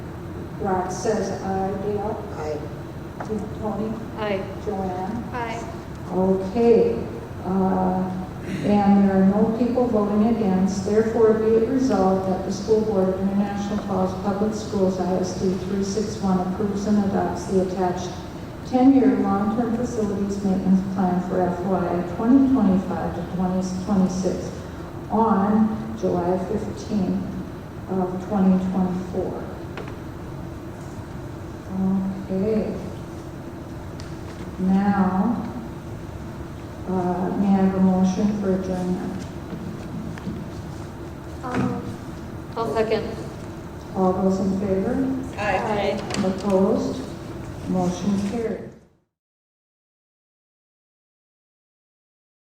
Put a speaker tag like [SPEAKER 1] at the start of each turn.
[SPEAKER 1] Rod says aye. Dale?
[SPEAKER 2] Aye.
[SPEAKER 1] Tony?
[SPEAKER 3] Aye.
[SPEAKER 1] Joanne?
[SPEAKER 3] Aye.
[SPEAKER 1] Okay, uh, and there are no people voting against, therefore be it resolved that the School Board of International Falls Public Schools ISD 361 approves and adopts the attached 10-year long-term facilities maintenance plan for FY 2025 to 2026 on July 15th of 2024. Okay. Now, uh, May I have a motion for adjournment?
[SPEAKER 3] I'll second.
[SPEAKER 1] All those in favor?
[SPEAKER 3] Aye.
[SPEAKER 1] Opposed? Motion carried.